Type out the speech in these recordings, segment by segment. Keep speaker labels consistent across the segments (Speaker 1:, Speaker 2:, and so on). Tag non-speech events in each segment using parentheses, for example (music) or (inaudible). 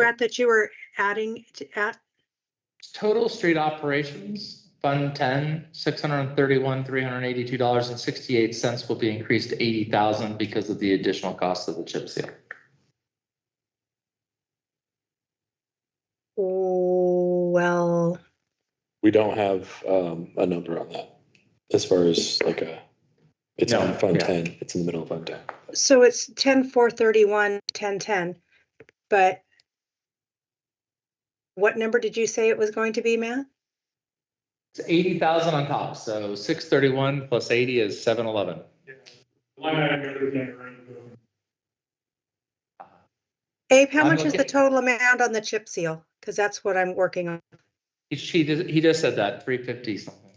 Speaker 1: Brett, that you were adding to at,
Speaker 2: Total street operations, Fund ten, six hundred and thirty-one, three hundred and eighty-two dollars and sixty-eight cents will be increased to eighty thousand because of the additional cost of the chip seal.
Speaker 1: oh, well,
Speaker 3: We don't have um, a number on that as far as like a, it's
Speaker 2: No,
Speaker 3: on Fund
Speaker 2: yeah.
Speaker 3: 10, it's in the middle of Fund 10.
Speaker 1: so it's ten, four thirty-one, ten, ten, but what number did you say it was going to be, Matt?
Speaker 2: It's eighty thousand on top, so six thirty-one plus eighty is seven eleven.
Speaker 4: Line item goes in the room.
Speaker 1: Abe, how
Speaker 2: I'm
Speaker 1: much is the
Speaker 2: looking-
Speaker 1: total amount on the chip seal? Because that's what I'm working on.
Speaker 2: He, she, did- he just said that, three fifty something.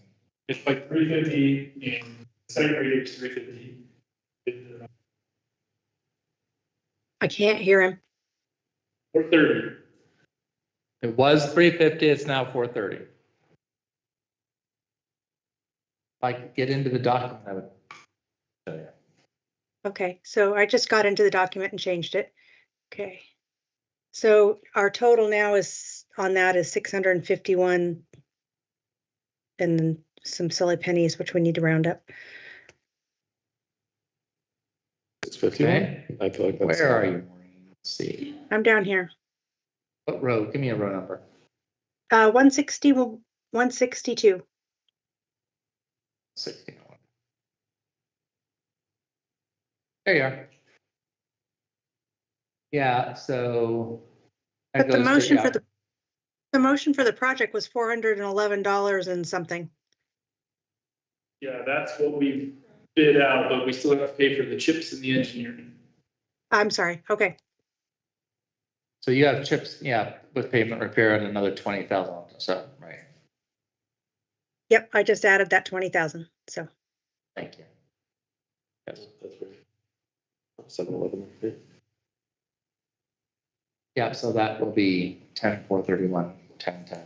Speaker 4: It's like three fifty and secondary is three fifty.
Speaker 1: I can't hear him.
Speaker 4: Four thirty.
Speaker 2: It was three fifty, it's now four thirty. If I could get into the document, I would. show you.
Speaker 1: Okay, so I just got into the document and changed it. Okay. So our total now is, on that is six hundred and fifty-one. And then some silly pennies, which we need to round up.
Speaker 3: It's 51?
Speaker 2: Okay,
Speaker 3: I feel like that's.
Speaker 2: where are you? Maureen? Let's see,
Speaker 1: I'm down here.
Speaker 2: what road, give me a road number.
Speaker 1: Uh, one sixty, one sixty-two.
Speaker 2: Sixteen oh one. There you are. Yeah, so. that
Speaker 1: But the
Speaker 2: goes to-
Speaker 1: motion
Speaker 2: yeah.
Speaker 1: for the, the motion for the project was four hundred and eleven dollars and something.
Speaker 4: Yeah, that's what we bid out, but we still have to pay for the chips and the engineering.
Speaker 1: I'm sorry. Okay,
Speaker 2: So you have chips, yeah, with pavement repair and another twenty thousand, so, right,
Speaker 1: yep, I just added that twenty thousand, (laughs) so.
Speaker 2: thank you. Yes.
Speaker 3: That's where- 7-Eleven. yeah.
Speaker 2: Yeah, so that will be ten, four thirty-one, ten, ten.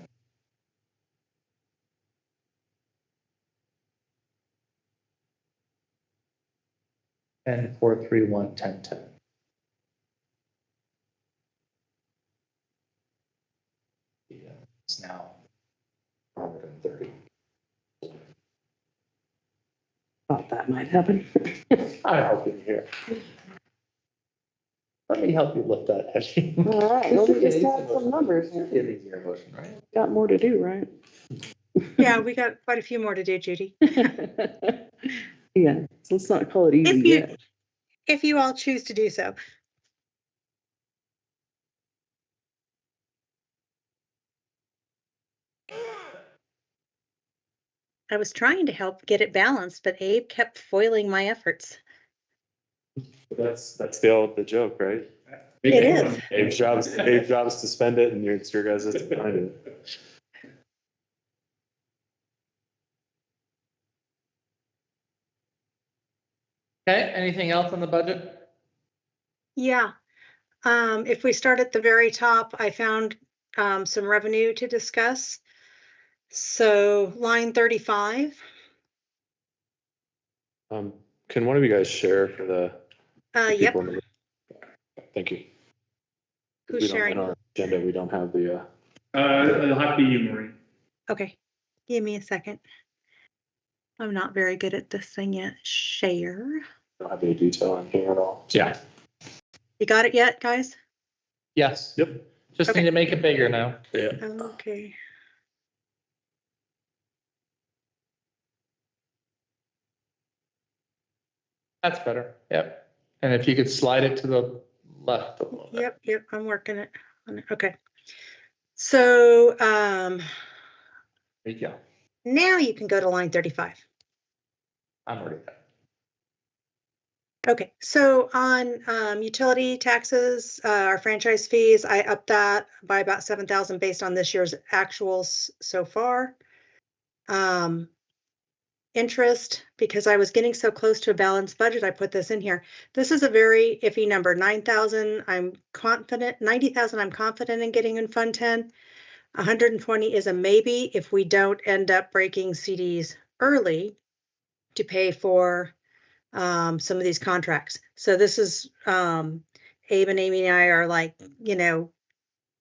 Speaker 2: Ten, four, three, one, ten, ten. Yeah, it's now hundred and thirty.
Speaker 5: Thought that might happen.
Speaker 2: I hope you're here. Let me help you lift that heavy.
Speaker 5: All right, well, we
Speaker 2: (laughs)
Speaker 5: just got some numbers.
Speaker 2: It is your motion, right?
Speaker 5: Got more to do, right? (laughs)
Speaker 1: Yeah, we got quite a few more to do, Judy. (laughs)
Speaker 5: Yeah, so let's not call it easy
Speaker 1: If you-
Speaker 5: yet.
Speaker 1: If you all choose to do so. I was trying to help get it balanced, but Abe kept foiling my efforts.
Speaker 4: That's,
Speaker 3: That's the old, the joke, right?
Speaker 1: It is.
Speaker 3: Dave's job's, Dave's job's to spend it and your, it's your guys' is to find it.
Speaker 2: Okay, anything else on the budget?
Speaker 1: Yeah. Um, if we start at the very top, I found, um, some revenue to discuss. So line thirty-five,
Speaker 3: Um, can one of you guys share for the?
Speaker 1: uh,
Speaker 3: the
Speaker 1: yep,
Speaker 3: people in the room? Thank you.
Speaker 1: who's
Speaker 3: We don't- In
Speaker 1: sharing?
Speaker 3: our agenda, we don't have the, uh,
Speaker 4: Uh, it'll have to be you, Maureen.
Speaker 1: Okay, give me a second. I'm not very good at this thing yet. Share.
Speaker 3: don't have any detail on here at all.
Speaker 2: Yeah.
Speaker 1: You got it yet, guys?
Speaker 2: Yes.
Speaker 3: Yep.
Speaker 2: Just need
Speaker 1: Okay.
Speaker 2: to make it bigger now.
Speaker 3: Yeah.
Speaker 1: Okay.
Speaker 2: That's better. Yep. And if you could slide it to the left a little bit.
Speaker 1: Yep, yep, I'm working it. on it. Okay. So, um,
Speaker 2: There you go.
Speaker 1: now you can go to line thirty-five.
Speaker 2: I'm already there.
Speaker 1: Okay, so on um, utility taxes, uh, our franchise fees, I upped that by about seven thousand based on this year's actuals so far. Um, Interest, because I was getting so close to a balanced budget, I put this in here. This is a very iffy number, nine thousand, I'm confident, ninety thousand, I'm confident in getting in Fund Ten. hundred and twenty is a maybe if we don't end up breaking CDs early to pay for um, some of these contracts. So this is, um, Abe and Amy and I are like, you know,